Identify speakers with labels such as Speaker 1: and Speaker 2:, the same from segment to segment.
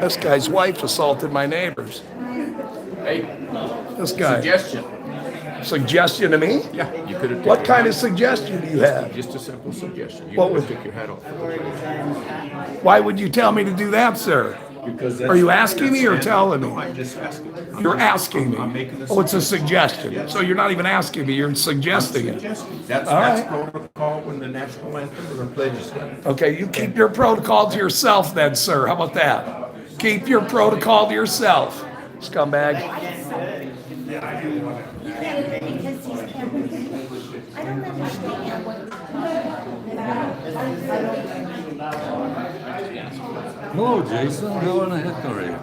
Speaker 1: This guy's wife assaulted my neighbors.
Speaker 2: Hey,
Speaker 1: This guy.
Speaker 2: suggestion.
Speaker 1: Suggestion to me?
Speaker 2: Yeah, you could have.
Speaker 1: What kind of suggestion do you have?
Speaker 2: Just a simple suggestion. You
Speaker 1: What
Speaker 2: could have
Speaker 1: was-
Speaker 2: took your hat off.
Speaker 1: Why would you tell me to do that, sir?
Speaker 2: Because that's-
Speaker 1: Are you asking me or
Speaker 2: that's-
Speaker 1: telling
Speaker 2: No, I'm
Speaker 1: me?
Speaker 2: just asking. I'm
Speaker 1: You're
Speaker 2: just-
Speaker 1: asking
Speaker 2: I'm
Speaker 1: me.
Speaker 2: making a
Speaker 1: Oh, it's a
Speaker 2: suggestion.
Speaker 1: suggestion. So you're not even asking me, you're suggesting it.
Speaker 2: Suggestion. That's,
Speaker 1: All
Speaker 2: that's
Speaker 1: right.
Speaker 2: protocol when the national anthem or pledges.
Speaker 1: Okay, you keep your protocol to yourself then, sir. How about that? Keep your protocol to yourself, scumbag.
Speaker 3: You can't do it because he's camping. I don't understand what.
Speaker 4: Hello, Jason. How in the heck are you?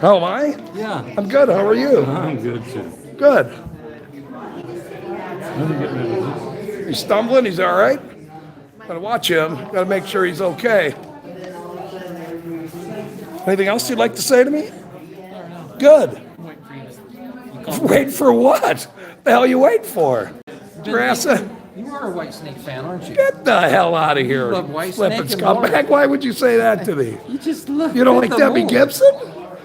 Speaker 1: How am I?
Speaker 4: Yeah,
Speaker 1: I'm good. How are you?
Speaker 4: I'm good too.
Speaker 1: Good.
Speaker 4: Let me get rid of this.
Speaker 1: He's stumbling. He's all right. Gotta watch him. Gotta make sure he's okay. Anything else you'd like to say to me? Good. Wait for what? The hell you wait for? Grassa,
Speaker 5: You are a White Snake fan, aren't you?
Speaker 1: get the hell out of here.
Speaker 5: love White
Speaker 1: Flippin'
Speaker 5: Snake and Warren.
Speaker 1: scumbag. Why would you say that to me?
Speaker 5: You just look.
Speaker 1: You don't like
Speaker 5: at the
Speaker 1: Debbie
Speaker 5: moon.
Speaker 1: Gibson?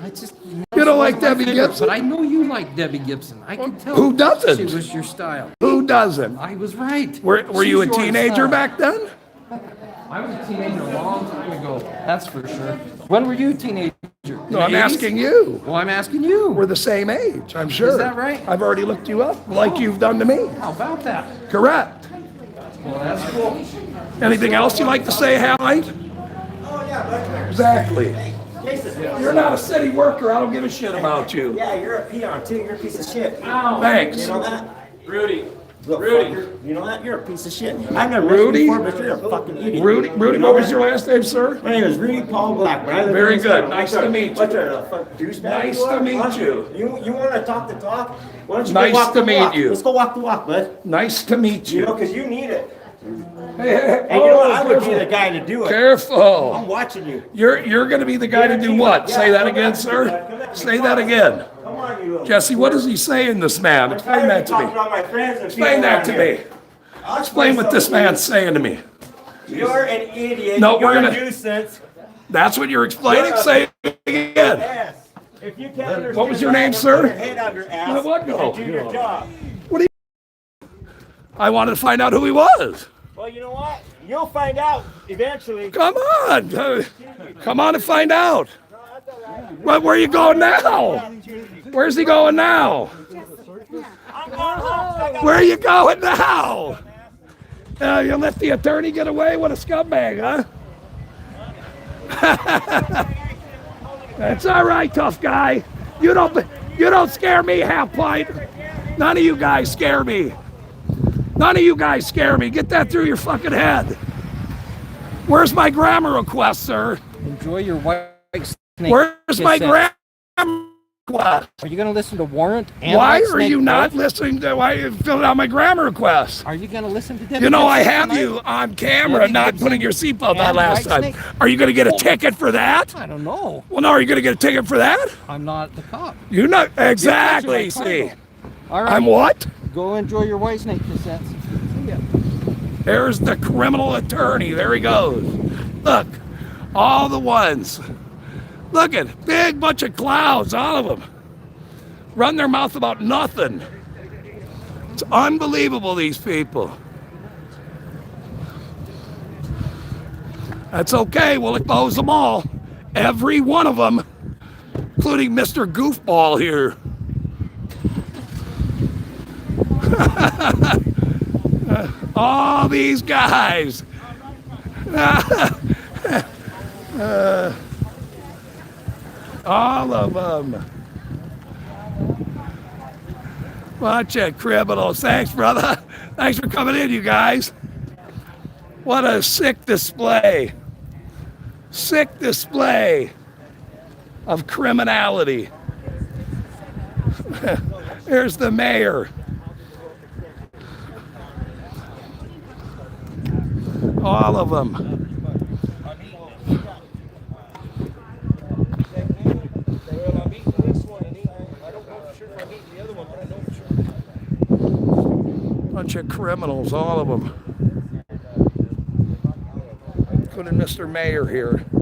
Speaker 5: I just.
Speaker 1: don't
Speaker 5: she
Speaker 1: like
Speaker 5: wasn't my
Speaker 1: Debbie
Speaker 5: favorite,
Speaker 1: Gibson?
Speaker 5: But I know you like Debbie Gibson. I can tell.
Speaker 1: Who doesn't?
Speaker 5: She was your style.
Speaker 1: Who doesn't?
Speaker 5: I was right.
Speaker 1: Were, were
Speaker 5: She's
Speaker 1: you a
Speaker 5: your
Speaker 1: teenager
Speaker 5: style.
Speaker 1: back then?
Speaker 5: I was a teenager a long time ago. That's for sure. When were you a teenager?
Speaker 1: No, I'm asking you.
Speaker 5: Well, I'm asking you.
Speaker 1: We're the same age, I'm sure.
Speaker 5: that right?
Speaker 1: I've already looked you up like you've done to me.
Speaker 5: How about that?
Speaker 1: Correct.
Speaker 5: Well, that's cool.
Speaker 1: Anything else you'd like to say, Hallie? Exactly.
Speaker 6: Oh, Jason,
Speaker 1: You're not a city worker. I don't give a shit about you.
Speaker 6: yeah, you're a peon too. You're a piece of shit. You
Speaker 1: Thanks.
Speaker 6: know that?
Speaker 7: Rudy,
Speaker 6: Little
Speaker 7: Rudy.
Speaker 6: fucker. You know that? You're a piece of shit. I've never
Speaker 1: Rudy?
Speaker 6: met you before, but you're a fucking idiot.
Speaker 1: Rudy, Rudy,
Speaker 6: You know
Speaker 1: what was
Speaker 6: that?
Speaker 1: your last name, sir?
Speaker 6: My name is Rudy Paul Black. Right?
Speaker 1: Very good. Nice to meet you.
Speaker 6: What the fuck, douchebag?
Speaker 1: Nice
Speaker 6: you are?
Speaker 1: to meet
Speaker 6: Why don't
Speaker 1: you.
Speaker 6: You you want to talk the talk? Why don't you
Speaker 1: Nice
Speaker 6: go walk
Speaker 1: to
Speaker 6: the
Speaker 1: meet
Speaker 6: walk?
Speaker 1: you.
Speaker 6: Let's go walk the walk, bud.
Speaker 1: Nice to meet
Speaker 6: You know,
Speaker 1: you.
Speaker 6: because you need it.
Speaker 1: Hey, hey,
Speaker 6: And you know what? I
Speaker 1: oh,
Speaker 6: would be the
Speaker 1: careful.
Speaker 6: guy to do it. I'm
Speaker 1: Careful.
Speaker 6: watching you.
Speaker 1: You're, you're gonna be the guy to do what? Say that again,
Speaker 6: Come
Speaker 1: sir?
Speaker 6: on,
Speaker 1: Say
Speaker 6: you
Speaker 1: that
Speaker 6: fuck.
Speaker 1: again.
Speaker 6: Come on, you little.
Speaker 1: Jesse, what is he saying, this man?
Speaker 6: I'm
Speaker 1: Explain
Speaker 6: tired
Speaker 1: that
Speaker 6: of
Speaker 1: to
Speaker 6: talking
Speaker 1: me.
Speaker 6: about my friends and
Speaker 1: Explain
Speaker 6: people
Speaker 1: that to
Speaker 6: around here.
Speaker 1: me.
Speaker 6: I'll
Speaker 1: Explain what this
Speaker 6: something to you.
Speaker 1: man's saying to me.
Speaker 6: You're an idiot.
Speaker 1: No, we're
Speaker 6: You're
Speaker 1: gonna-
Speaker 6: a nuisance.
Speaker 1: That's what you're explaining? Say it again.
Speaker 6: Ass. If you can't understand
Speaker 1: What was your
Speaker 6: that,
Speaker 1: name,
Speaker 6: then
Speaker 1: sir?
Speaker 6: Put your head on your ass.
Speaker 1: Let what go?
Speaker 6: And do your job.
Speaker 1: I wanted to find out who he was.
Speaker 6: Well, you know what? You'll find out eventually.
Speaker 1: Come on. uh, Come on and find out.
Speaker 6: No, that's all right.
Speaker 1: Well, where are you going now? Where's he going now?
Speaker 6: I'm going home. I got
Speaker 1: Where are you going now? Uh, you let the attorney get away? What a scumbag, huh? That's all right, tough guy. You don't you don't scare me, half pint. None of you guys scare me. None of you guys scare me. Get that through your fucking head. Where's my grammar request, sir?
Speaker 5: Enjoy your White Snake.
Speaker 1: Where's my
Speaker 5: Kiss
Speaker 1: grammar
Speaker 5: ass.
Speaker 1: request?
Speaker 5: Are you going to listen to Warrant? And
Speaker 1: Why
Speaker 5: White
Speaker 1: are
Speaker 5: Snake
Speaker 1: you not
Speaker 5: both?
Speaker 1: listening to why you filled out my grammar request?
Speaker 5: Are you going to listen to Debbie?
Speaker 1: You know, I
Speaker 5: Gibson
Speaker 1: have
Speaker 5: tonight?
Speaker 1: you on camera
Speaker 5: Debbie
Speaker 1: not
Speaker 5: Gibson
Speaker 1: putting your seatbelt on
Speaker 5: and
Speaker 1: last
Speaker 5: White
Speaker 1: time.
Speaker 5: Snake.
Speaker 1: Are you going to get a ticket for that?
Speaker 5: I don't know.
Speaker 1: Well, no, are you going to get a ticket for that?
Speaker 5: I'm not the cop.
Speaker 1: You're not exactly.
Speaker 5: Exactly.
Speaker 1: See,
Speaker 5: All right.
Speaker 1: I'm what?
Speaker 5: Go enjoy your white snake cassettes. See ya.
Speaker 1: There's the criminal attorney. There he goes. Look, all the ones. Look at big bunch of clouds, all of them. Run their mouth about nothing. It's unbelievable, these people. That's okay. We'll expose them all. Every one of them, including Mr. Goofball here. all these guys. Uh, all of them. Watch it, criminals. Thanks, brother. Thanks for coming in, you guys. What a sick display. Sick display of criminality. Here's the mayor. All of them.
Speaker 7: Well, I'm eating this one and eating, I don't know for sure if I'm eating the other one, but I know for sure.
Speaker 1: Bunch of criminals, all of them. Including Mr. Mayor here.